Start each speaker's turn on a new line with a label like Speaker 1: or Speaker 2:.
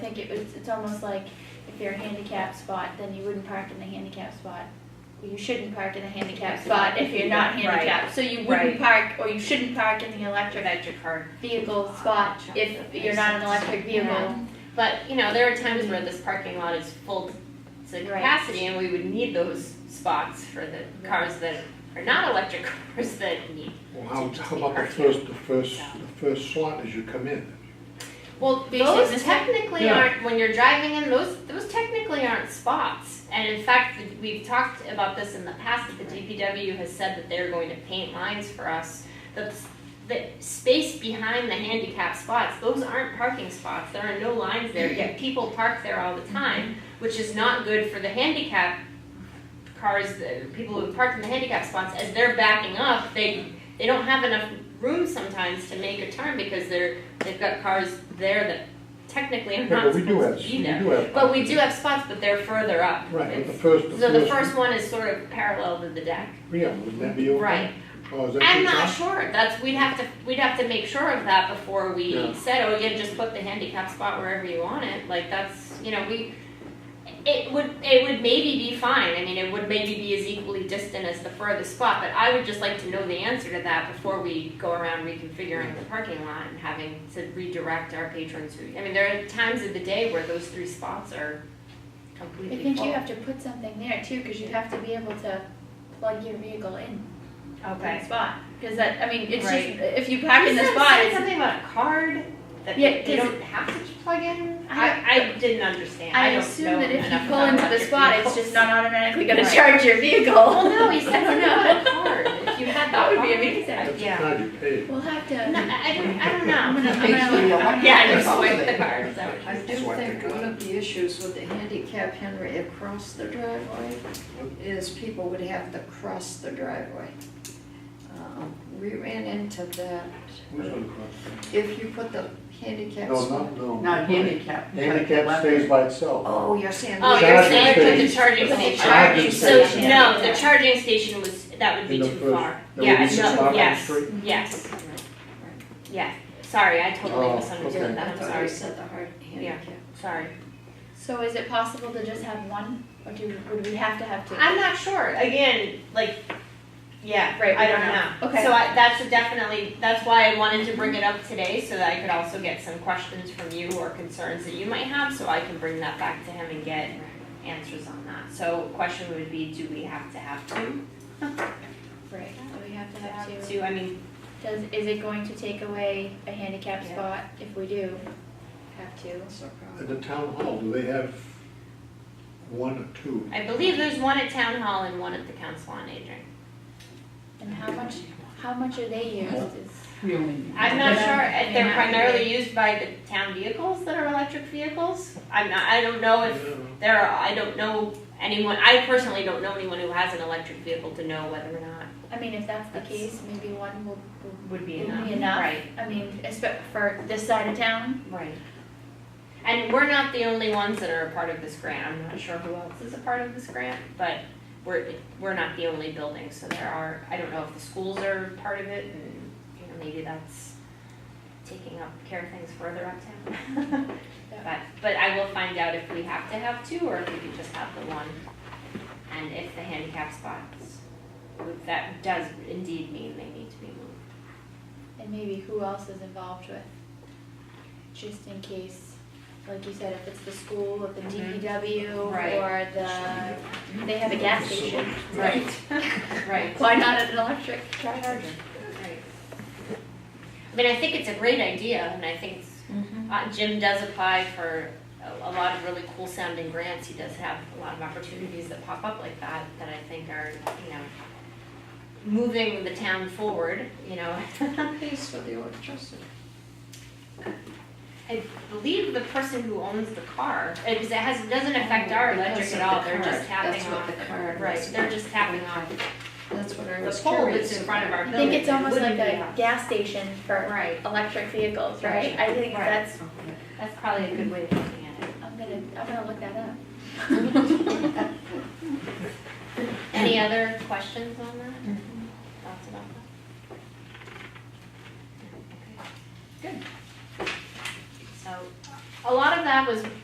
Speaker 1: think it was, it's almost like if you're a handicap spot, then you wouldn't park in the handicap spot. You shouldn't park in the handicap spot if you're not
Speaker 2: Right.
Speaker 1: handicapped, so you wouldn't park, or you shouldn't park in the electric vehicle spot if you're not an electric vehicle.
Speaker 3: Yeah. But, you know, there are times where this parking lot is full to
Speaker 1: Right.
Speaker 3: capacity and we would need those spots for the cars that are not electric cars that need.
Speaker 4: Well, how, how about the first, the first, the first slot as you come in?
Speaker 3: Well,
Speaker 1: They should
Speaker 3: those
Speaker 1: just-
Speaker 3: technically
Speaker 4: Yeah.
Speaker 3: aren't, when you're driving in, those, those technically aren't spots. And in fact, we- we've talked about this in the past, that the DPW has said that they're going to paint lines for us. That the space behind the handicap spots, those aren't parking spots, there are no lines there, yet people park there all the time, which is not good for the handicap cars, the people who park in the handicap spots, as they're backing up, they, they don't have enough room sometimes to make a turn because they're, they've got cars there that technically are
Speaker 4: Yeah,
Speaker 3: not
Speaker 4: but we do have,
Speaker 3: supposed to be
Speaker 4: we do
Speaker 3: there.
Speaker 4: have.
Speaker 3: But we do have spots, but they're further up.
Speaker 4: Right, but the
Speaker 3: It's-
Speaker 4: first, the first.
Speaker 3: So the first one is sort of parallel to the deck.
Speaker 4: Yeah, wouldn't that be okay?
Speaker 3: Right.
Speaker 4: Oh, is that
Speaker 3: I'm
Speaker 4: your
Speaker 3: not
Speaker 4: job?
Speaker 3: sure, that's, we'd have to, we'd have to make sure of that before we
Speaker 4: Yeah.
Speaker 3: said, oh, yeah, just put the handicap spot wherever you want it, like, that's, you know, we, it would, it would maybe be fine, I mean, it would maybe be as equally distant as the furthest spot, but I would just like to know the answer to that before we go around reconfiguring the parking lot and having to redirect our patrons who, I mean, there are times of the day where those three spots are
Speaker 1: I
Speaker 3: completely full.
Speaker 1: think you have to put something there too, cause you have to be able to plug your vehicle in that spot. Cause that, I mean, it's just,
Speaker 2: Right.
Speaker 1: if you park in the
Speaker 3: Isn't it
Speaker 1: spot,
Speaker 3: said
Speaker 1: it's
Speaker 3: something about a card that
Speaker 1: Yeah,
Speaker 3: they they
Speaker 1: does it-
Speaker 3: don't have to plug in?
Speaker 1: I-
Speaker 3: I, I didn't understand.
Speaker 1: I
Speaker 3: don't know
Speaker 1: assume that if you
Speaker 3: enough
Speaker 1: pull
Speaker 3: about
Speaker 1: into the
Speaker 3: electric
Speaker 1: spot, it's
Speaker 3: vehicles.
Speaker 1: just not automatically gonna
Speaker 3: Right.
Speaker 1: charge your vehicle.
Speaker 3: Well, no, he said
Speaker 1: I
Speaker 3: something
Speaker 1: don't know.
Speaker 3: about a card, if you had
Speaker 1: That
Speaker 3: that
Speaker 1: would be
Speaker 3: card.
Speaker 1: amazing.
Speaker 3: I-
Speaker 4: That's the
Speaker 2: Yeah.
Speaker 4: card you pay.
Speaker 1: We'll have
Speaker 3: No,
Speaker 1: to.
Speaker 3: I I don't, I don't
Speaker 1: I'm
Speaker 3: know.
Speaker 1: gonna, I'm gonna.
Speaker 3: Yeah, just swipe the card, is that what you
Speaker 2: I do think one of the issues with the handicap Henry across the driveway is people would have to cross the driveway. Um, We ran into that.
Speaker 4: Who's gonna cross?
Speaker 2: If you put the handicap.
Speaker 4: No,
Speaker 2: spot-
Speaker 4: not, no.
Speaker 5: Not handicap. but
Speaker 4: Handicap
Speaker 5: left.
Speaker 4: stays by itself.
Speaker 2: Oh, you're saying.
Speaker 3: Oh, you're
Speaker 4: Charging
Speaker 3: saying put the
Speaker 4: station.
Speaker 3: charging
Speaker 2: Put the
Speaker 3: station.
Speaker 2: charging
Speaker 3: So,
Speaker 2: station.
Speaker 3: no, the charging station was, that would be
Speaker 4: In the
Speaker 3: too
Speaker 4: first-
Speaker 3: far.
Speaker 4: that
Speaker 3: Yeah,
Speaker 4: would be
Speaker 3: no,
Speaker 4: too far on the
Speaker 3: yes,
Speaker 4: street?
Speaker 3: yes. Yeah, sorry, I totally
Speaker 4: Oh,
Speaker 3: misunderstood
Speaker 4: okay.
Speaker 3: that,
Speaker 2: I
Speaker 3: I'm
Speaker 2: thought you
Speaker 3: sorry,
Speaker 2: said the hard handicap.
Speaker 3: sorry.
Speaker 1: So is it possible to just have one, or do, would we have to have two?
Speaker 3: I'm not sure. Again, like, yeah,
Speaker 1: Right, we
Speaker 3: I
Speaker 1: don't
Speaker 3: don't
Speaker 1: know.
Speaker 3: know.
Speaker 1: Okay.
Speaker 3: So I, that's a definitely that's why I wanted to bring it up today so that I could also get some questions from you or concerns that you might have, so I can bring that back to him and get answers on that. So question would be, do we have to have two?
Speaker 1: Right, do we have to have two?
Speaker 3: I mean,
Speaker 1: Does, is it going to take away a handicap
Speaker 3: Yeah.
Speaker 1: spot if we do have two?
Speaker 2: So probably-
Speaker 4: At the town hall, do they have one or two?
Speaker 3: I believe there's one at town hall and one at the council on aging.
Speaker 1: And how much, how much are they used? Is-
Speaker 5: We only-
Speaker 3: I'm not
Speaker 1: Yeah.
Speaker 3: sure, if they're
Speaker 1: Yeah.
Speaker 3: primarily used by the town vehicles that are electric vehicles. I'm not, I don't know if There are, I don't know anyone, I personally don't know anyone who has an electric vehicle to know whether or not
Speaker 1: I mean, if that's the
Speaker 3: That's-
Speaker 1: case, maybe one will, will-
Speaker 3: would be
Speaker 1: Would be
Speaker 3: enough.
Speaker 1: enough.
Speaker 3: Right,
Speaker 1: I mean, espe- for this side of town,
Speaker 3: right. And we're not the only ones that are a part of this grant, I'm not sure who else is a part of this grant, but we're, we're not the only building, so there are, I don't know if the schools are part of it and, you know, maybe that's taking up, care of things further uptown. But, but I will find out if we have to have two or if we can just have the one. And if the handicap spots, that does indeed mean they need to be moved.
Speaker 1: and maybe who else is involved with? Just in case, like you said, if it's the school, if the
Speaker 3: Mhm.
Speaker 1: DPW,
Speaker 3: Right.
Speaker 1: or the, they have a gas station.
Speaker 3: Right, right,
Speaker 1: Why not an electric charger?
Speaker 3: right. I mean, I think it's a great idea and I think it's- uh, Jim does apply for a, a lot of really cool sounding grants. He does have a lot of opportunities that pop up like that, that I think are, you know, moving the town forward, you know.
Speaker 4: Uh,
Speaker 2: Pays for the electricity.
Speaker 3: I believe the person who owns the car, because it has, doesn't affect our electric
Speaker 2: Because of
Speaker 3: at
Speaker 2: the
Speaker 3: all, they're
Speaker 2: card.
Speaker 3: just tapping
Speaker 2: That's
Speaker 3: off.
Speaker 2: what the card
Speaker 3: Right,
Speaker 2: was.
Speaker 3: they're just tapping off
Speaker 2: That's what I
Speaker 3: the
Speaker 2: was
Speaker 3: pole
Speaker 2: curious.
Speaker 3: that's in front of
Speaker 2: about.
Speaker 3: our
Speaker 1: I
Speaker 3: building.
Speaker 1: think it's almost
Speaker 3: It
Speaker 1: like
Speaker 3: wouldn't be
Speaker 1: a
Speaker 3: us.
Speaker 1: gas station for
Speaker 3: Right,
Speaker 1: electric vehicles, right? I think
Speaker 3: Right.
Speaker 1: that's,
Speaker 3: that's probably a good way of looking at it.
Speaker 1: I'm gonna, I'm gonna look that up.
Speaker 3: Any other questions on that? Thoughts about that? Okay. Good. So, a lot of that was